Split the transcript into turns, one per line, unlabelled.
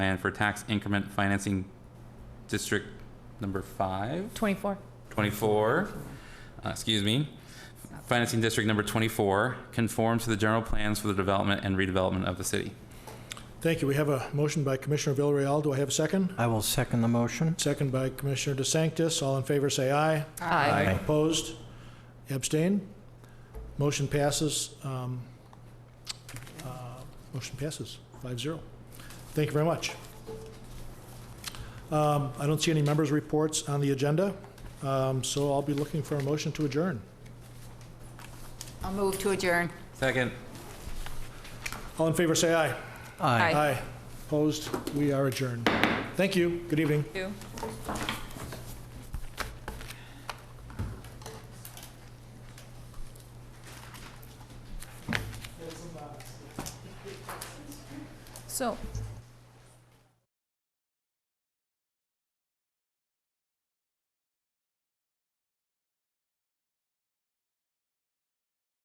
plan for tax increment financing district number five,
24.
24, uh, excuse me, financing district number 24, conform to the general plans for the development and redevelopment of the city.
Thank you. We have a motion by Commissioner Villarreal. Do I have a second?
I will second the motion.
Second by Commissioner DeSantis. All in favor, say aye.
Aye.
Opposed? Abstain? Motion passes. um, uh, Motion passes, 5-0. Thank you very much. Um, I don't see any members' reports on the agenda, um, so I'll be looking for a motion to adjourn.
I'll move to adjourn.
Second.
All in favor, say aye.
Aye.
Aye. Opposed? We are adjourned. Thank you. Good evening.
Two.